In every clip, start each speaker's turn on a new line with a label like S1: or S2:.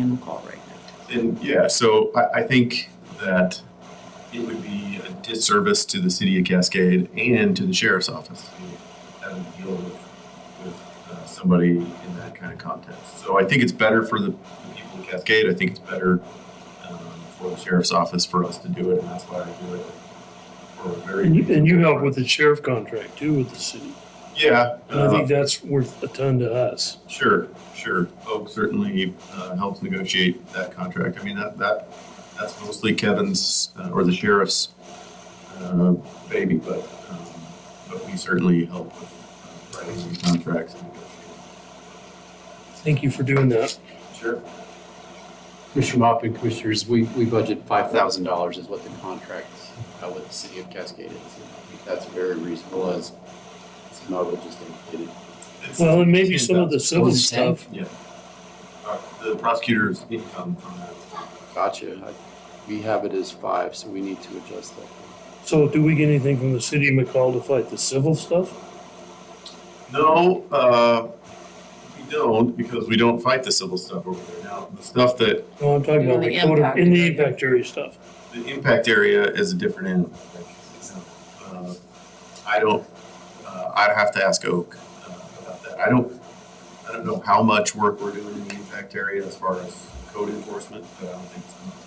S1: phone call right now.
S2: And yeah, so I, I think that it would be a disservice to the city of Cascade and to the sheriff's office to have to deal with, with uh, somebody in that kind of context. So I think it's better for the, the people of Cascade. I think it's better um, for the sheriff's office for us to do it, and that's why I do it. For a very
S3: And you, and you help with the sheriff contract too with the city.
S2: yeah.
S3: And I
S2: uh,
S3: think that's worth a ton to us.
S2: Sure, sure. Oak certainly uh, helps negotiate that contract. I mean, that, that, that's mostly Kevin's uh, or the sheriff's uh, baby, but, um, but we certainly help with uh, writing the contracts and negotiating.
S3: Thank you for doing that.
S2: Sure.
S4: Commissioner Mop and Commissioners, we, we budget five thousand dollars is what the contract uh, with the city of Cascade is. I think That's very reasonable as Sunogo just indicated.
S3: Well, and maybe some of the civil
S4: Was it ten?
S3: stuff.
S2: Uh, The prosecutor's income from that.
S4: Gotcha. I- We have it as five, so we need to adjust that.
S3: So do we get anything from the city of McCall to fight the civil stuff?
S2: No, uh, we don't because we don't fight the civil stuff over there. Now, the stuff that
S3: No, I'm talking about
S1: In the
S3: the code of,
S1: impact
S3: in the
S1: area.
S3: impact area stuff.
S2: The impact area is a different animal. Uh, I don't, uh, I'd have to ask Oak uh, about that. I don't, I don't know how much work we're doing in the impact area as far as code enforcement, but I don't think it's much.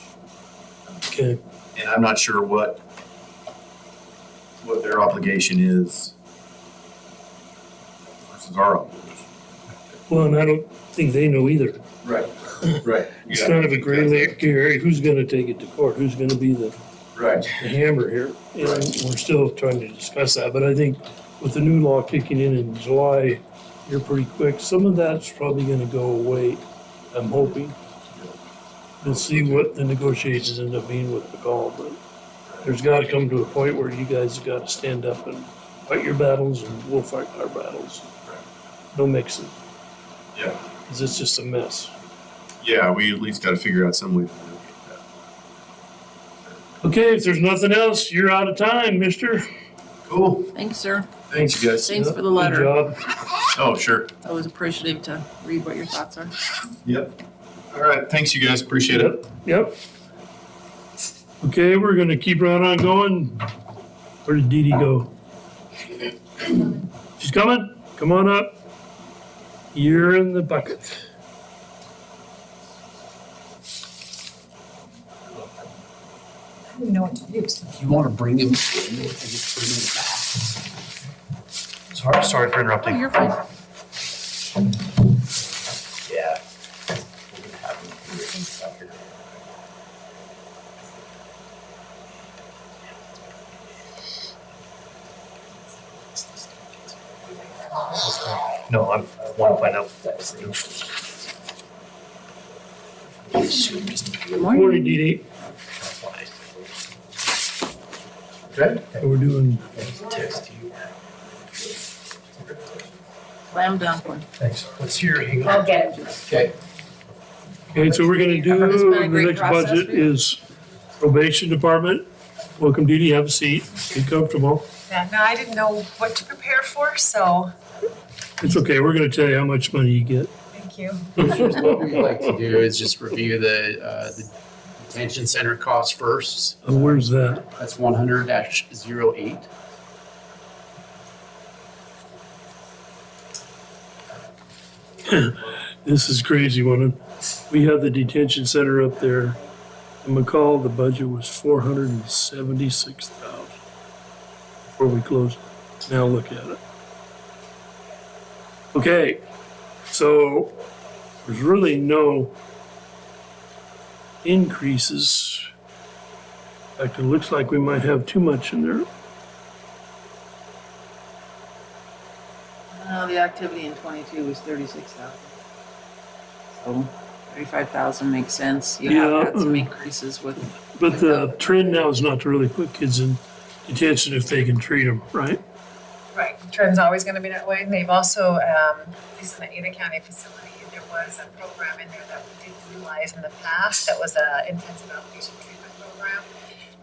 S3: Okay.
S2: And I'm not sure what, what their obligation is versus our obligation.
S3: Well, and I don't think they know either.
S2: Right, right.
S3: It's kind of a gray la- gray area. Who's gonna take it to court? Who's gonna be the
S2: Right.
S3: the hammer here. And we're still trying to discuss that, but I think with the new law kicking in in July, you're pretty quick. Some of that's probably gonna go away, I'm hoping. We'll see what the negotiations end up being with McCall, but there's gotta come to a point where you guys have gotta stand up and fight your battles and we'll fight our battles. No mixing,
S2: Yeah,
S3: cause it's just a mess.
S2: yeah, we at least gotta figure out some way to mitigate that.
S3: Okay, if there's nothing else, you're out of time, mister.
S2: Cool.
S1: Thanks, sir.
S2: Thanks, you guys.
S1: Thanks for the
S3: Good
S1: letter.
S3: job.
S2: Oh, sure.
S1: I was appreciative to read what your thoughts are.
S2: Yep. All right. Thanks, you guys. Appreciate it.
S3: Yep. Okay, we're gonna keep right on going. Where did Dee Dee go? She's coming? Come on up. You're in the bucket.
S5: I don't even know what to do. so-
S4: You want to bring him in, just bring him back?
S6: Sorry, sorry for
S1: Oh,
S6: interrupting.
S1: you're fine.
S6: Yeah. No, I'm, I want to find out.
S1: Good
S3: Morning, Dee Dee.
S6: Okay.
S3: So We're doing,
S6: Text you.
S1: Slam dunk one.
S6: Thanks. What's your, hang on.
S5: I'll get it.
S6: Okay.
S3: okay, so we're gonna do,
S1: It's been a
S3: the
S1: great
S3: next
S1: process
S3: budget
S1: for you.
S3: is probation department. Welcome, Dee Dee, have a seat, be comfortable.
S5: Yeah, no, I didn't know what to prepare for, so
S3: It's okay, we're gonna tell you how much money you get.
S5: thank you.
S4: Commissioners, What we like to do is just review the, uh, the detention center costs first.
S3: Uh, Where's that?
S4: That's one hundred dash zero eight.
S3: This is crazy one. We have the detention center up there. In McCall, the budget was four hundred and seventy-six thousand before we closed. Now look at it. Okay, so there's really no increases. In fact, it looks like we might have too much in there.
S1: Uh, the activity in twenty-two was thirty-six thousand. So thirty-five thousand makes sense. You
S3: Yeah.
S1: have had some increases with,
S3: But the trend now is not to really put kids in detention if they can treat them, right?
S5: Right, trend's always gonna be that way. And They've also, um, this is an Ada County facility. There was a program in there that we didn't utilize in the past. That was a intensive outpatient treatment program.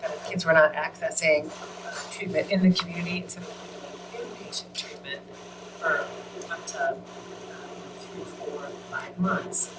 S5: That if kids were not accessing uh, treatment in the community, instead of inpatient treatment for up to um, three, four, uh, five months,